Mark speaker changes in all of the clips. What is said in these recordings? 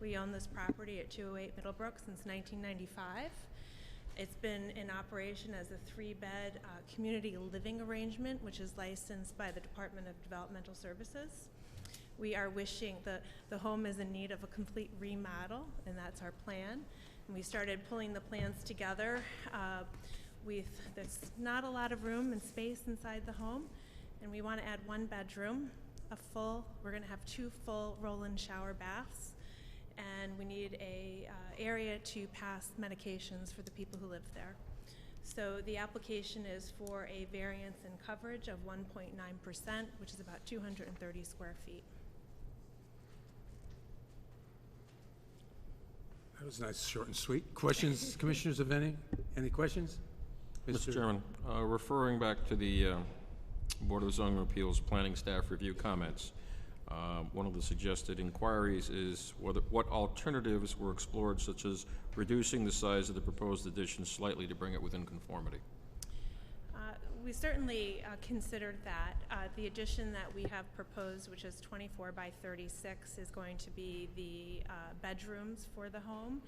Speaker 1: We own this property at 208 Middlebrook since 1995. It's been in operation as a three-bed uh, community living arrangement, which is licensed by the Department of Developmental Services. We are wishing, the, the home is in need of a complete remodel, and that's our plan. And we started pulling the plans together. uh, We've, there's not a lot of room and space inside the home, and we want to add one bedroom, a full, we're going to have two full roll-in shower baths, and we need a uh, area to pass medications for the people who live there. So the application is for a variance in coverage of 1.9%, which is about 230 square feet.
Speaker 2: That was nice, short and sweet. Questions, commissioners of any? Any questions?
Speaker 3: Mr. Chairman, uh, referring back to the uh, Board of Zoning Appeals Planning Staff Review comments, uh, one of the suggested inquiries is whether, what alternatives were explored, such as reducing the size of the proposed addition slightly to bring it within conformity?
Speaker 1: Uh, We certainly uh, considered that. Uh, The addition that we have proposed, which is 24 by 36, is going to be the uh, bedrooms for the home.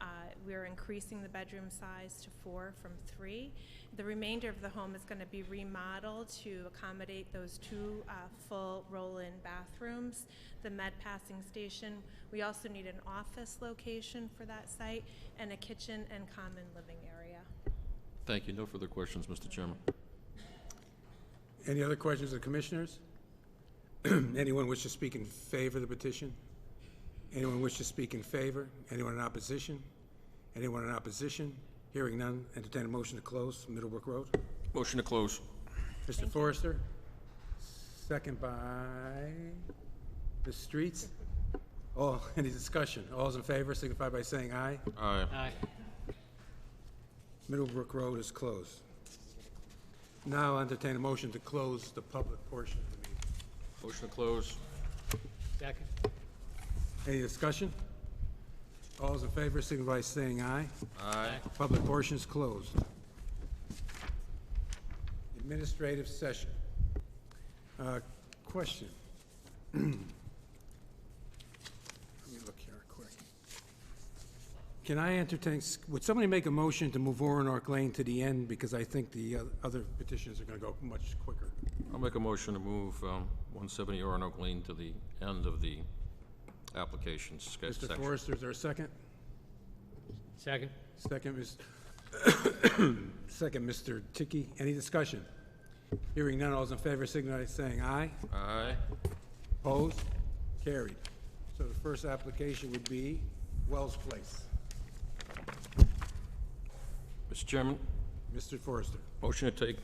Speaker 1: Uh, We're increasing the bedroom size to four from three. The remainder of the home is going to be remodeled to accommodate those two uh, full roll-in bathrooms, the med passing station. We also need an office location for that site, and a kitchen and common living area.
Speaker 3: Thank you. No further questions, Mr. Chairman.
Speaker 2: Any other questions of the commissioners? Anyone wish to speak in favor of the petition? Anyone wish to speak in favor? Anyone in opposition? Anyone in opposition? Hearing none, entertain a motion to close Middlebrook Road.
Speaker 3: Motion to close.
Speaker 2: Mr. Forrester, second by Ms. Streets. All, any discussion? All's in favor, signify by saying aye.
Speaker 3: Aye.
Speaker 2: Middlebrook Road is closed. Now entertain a motion to close the public portion of the meeting.
Speaker 3: Motion to close.
Speaker 4: Second.
Speaker 2: Any discussion? All those in favor, signify by saying aye.
Speaker 3: Aye.
Speaker 2: Public portion is closed. Administrative session. Uh, Question. Let me look here quick. Can I entertain, would somebody make a motion to move Orinoak Lane to the end? Because I think the uh, other petitions are going to go much quicker.
Speaker 3: I'll make a motion to move um, 170 Roanoke Lane to the end of the application sketch
Speaker 2: Mr.
Speaker 3: section.
Speaker 2: Forrester, is there a second?
Speaker 4: Second.
Speaker 2: Second, Ms., second, Mr. Tiki. Any discussion? Hearing none, all those in favor signify by saying aye.
Speaker 3: Aye.
Speaker 2: Opposed? Carried. So the first application would be Wells Place.
Speaker 3: Mr. Chairman,
Speaker 2: Mr. Forrester.
Speaker 3: Motion to take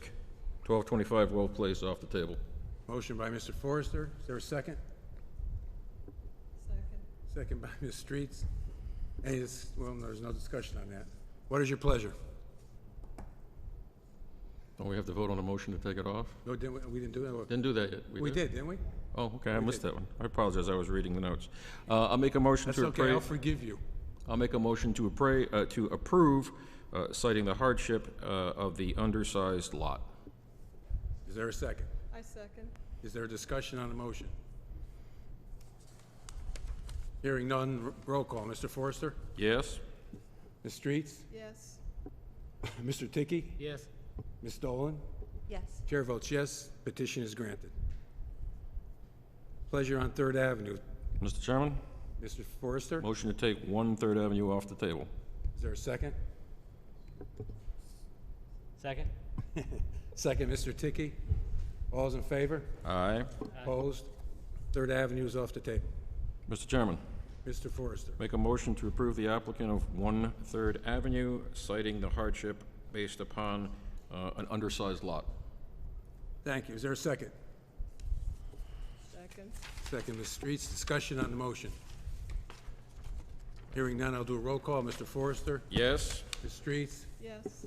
Speaker 3: 1225 Well Place off the table.
Speaker 2: Motion by Mr. Forrester. Is there a second? Second. Second by Ms. Streets. Any, dis- well, there's no discussion on that. What is your pleasure?
Speaker 3: Don't Oh, we have to vote on a motion to take it off?
Speaker 2: No, didn't, we- we didn't do that?
Speaker 3: Didn't do that yet.
Speaker 2: We did, didn't we?
Speaker 3: Oh, okay, I missed that one. I apologize, I was reading the notes. Uh, I'll make a motion
Speaker 2: That's
Speaker 3: to
Speaker 2: okay, I'll
Speaker 3: approve,
Speaker 2: forgive you.
Speaker 3: I'll make a motion to appra, uh, to approve uh, citing the hardship uh, of the undersized lot.
Speaker 2: Is there a second?
Speaker 5: I second.
Speaker 2: Is there a discussion on the motion? Hearing none, r- roll call. Mr. Forrester?
Speaker 3: Yes?
Speaker 2: Ms. Streets?
Speaker 5: Yes.
Speaker 2: Mr. Tiki?
Speaker 4: Yes.
Speaker 2: Ms. Dolan?
Speaker 5: Yes.
Speaker 2: Chair votes yes, petition is granted. Pleasure on Third Avenue.
Speaker 3: Mr. Chairman,
Speaker 2: Mr. Forrester?
Speaker 3: motion to take One Third Avenue off the table.
Speaker 2: Is there a second?
Speaker 4: Second.
Speaker 2: Second, Mr. Tiki? All's in favor?
Speaker 3: Aye.
Speaker 2: Opposed? Third Avenue is off the table.
Speaker 3: Mr. Chairman,
Speaker 2: Mr. Forrester?
Speaker 3: make a motion to approve the applicant of One Third Avenue citing the hardship based upon uh, an undersized lot.
Speaker 2: Thank you. Is there a second?
Speaker 5: Second.
Speaker 2: Second, Ms. Streets, discussion on the motion. Hearing none, I'll do a roll call. Mr. Forrester?
Speaker 3: Yes?
Speaker 2: Ms. Streets?
Speaker 5: Yes.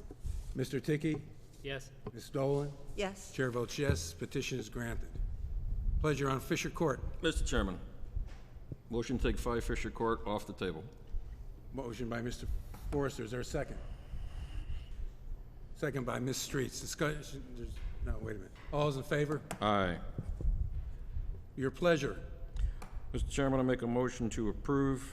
Speaker 2: Mr. Tiki?
Speaker 4: Yes.
Speaker 2: Ms. Dolan?
Speaker 5: Yes.
Speaker 2: Chair votes yes, petition is granted. Pleasure on Fisher Court.
Speaker 3: Mr. Chairman, motion to take 5 Fisher Court off the table.
Speaker 2: Motion by Mr. Forrester, is there a second? Second by Ms. Streets, discussion, there's- no, wait a minute. All's in favor?
Speaker 3: Aye.
Speaker 2: Your pleasure.
Speaker 3: Mr. Chairman, I make a motion to approve